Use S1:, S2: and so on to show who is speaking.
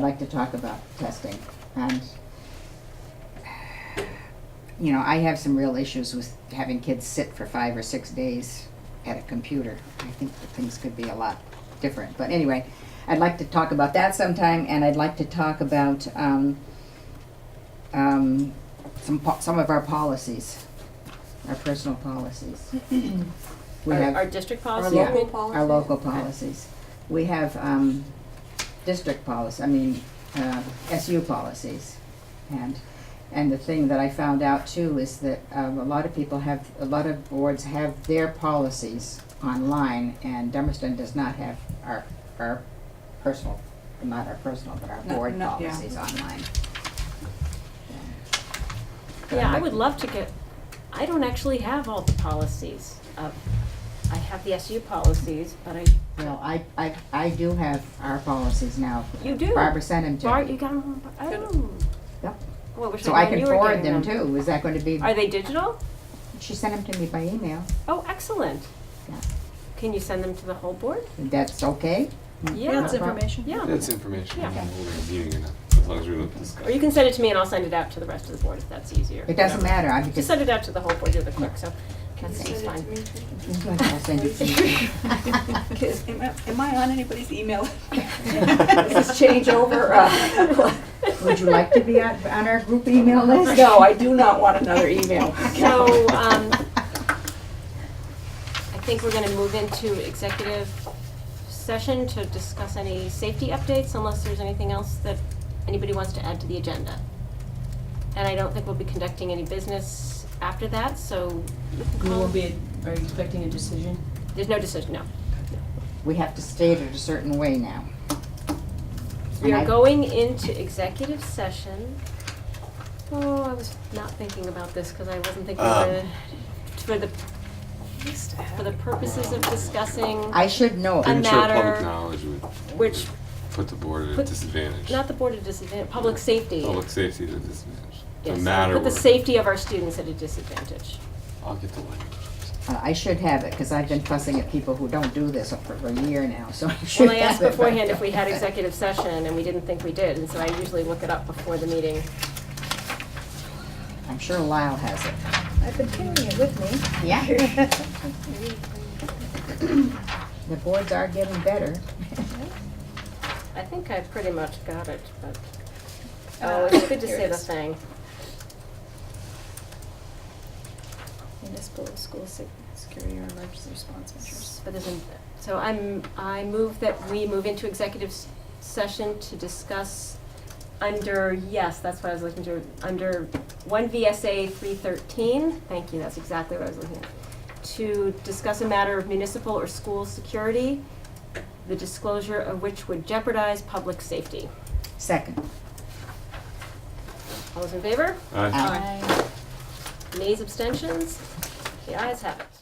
S1: like to talk about testing and you know, I have some real issues with having kids sit for five or six days at a computer. I think that things could be a lot different. But anyway, I'd like to talk about that sometime, and I'd like to talk about um, um, some po- some of our policies, our personal policies. we
S2: Our,
S1: have
S2: our district
S3: Our
S2: policy?
S1: Yeah.
S3: local policy?
S1: our local policies. We have um, district policy, I mean, uh, SU policies. And, and the thing that I found out too is that um, a lot of people have, a lot of boards have their policies online and Dummerston does not have our, our personal, not our personal, but our
S3: No,
S1: board
S3: no, yeah.
S1: policies online.
S2: Yeah, I would love to get, I don't actually have all the policies of, I have the SU policies, but I,
S1: Well, I, I, I do have our policies now.
S2: You do?
S1: Barbara sent them to
S2: Bart,
S1: me.
S2: you got them, oh.
S1: Yep.
S2: Well, wish
S1: So
S2: I
S1: I
S2: knew
S1: can
S2: you were
S1: forward
S2: getting
S1: them too. Is that going to be?
S2: Are they digital?
S1: She sent them to me by email.
S2: Oh, excellent.
S1: Yeah.
S2: Can you send them to the whole board?
S1: That's okay?
S2: Yeah.
S3: That's information.
S2: Yeah,
S4: That's information,
S2: Yeah.
S4: I'm reviewing it, as long as we don't discuss.
S2: or you can send it to me and I'll send it out to the rest of the board if that's easier.
S1: It doesn't matter, I
S2: Just
S1: because,
S2: send it out to the whole board, you're the clerk, so that's
S3: Send
S2: that's
S3: it to
S2: fine.
S3: me, please.
S1: I'll send it to you.
S3: Is- Am I- am I on anybody's email? Is this change over? uh,
S1: Would you like to be on, on our group email list?
S3: No, I do not want another email.
S2: So, um, I think we're gonna move into executive session to discuss any safety updates unless there's anything else that anybody wants to add to the agenda. And I don't think we'll be conducting any business after that, so you can
S5: We
S2: call.
S5: will be, are you expecting a decision?
S2: There's no decision, no.
S1: We have to state it a certain way now.
S2: We
S1: And
S2: are
S1: I-
S2: going into executive session. Oh, I was not thinking about this because I wasn't thinking of
S4: Um.
S2: the, for the, for the purposes of discussing,
S1: I should know it.
S2: I'm-
S4: Premature public
S2: matter-
S4: knowledge would
S2: which
S4: put the board at a
S2: Put-
S4: disadvantage.
S2: Not the board of disadvantage, public safety.
S4: Public safety at a disadvantage.
S2: Yes,
S4: The matter.
S2: Put the
S4: word.
S2: safety of our students at a disadvantage.
S4: I'll get the language.
S1: Uh, I should have it, because I've been fussing at people who don't do this for for a year now, so I should have
S2: Well, I
S1: it.
S2: asked
S1: but-
S2: beforehand if we had executive session, and we didn't think we did, and so I usually look it up before the meeting.
S1: I'm sure Lyle has it.
S6: I've been carrying it with me.
S1: Yeah. The boards are getting better.
S2: I think I pretty much got it, but, oh, it's good to
S6: here
S2: say
S6: it
S2: the
S6: is.
S2: thing.
S6: Municipal school se- security or emergency response measures.
S2: But there's, an- so I'm, I move that we move into executive s- session to discuss under, yes, that's what I was looking to, under one VSA three thirteen, thank you, that's exactly what I was looking at. To discuss a matter of municipal or school security, the disclosure of which would jeopardize public safety.
S1: Second.
S2: All those in favor?
S4: Aye.
S1: Aye.
S2: Nays, abstentions? The ayes have it.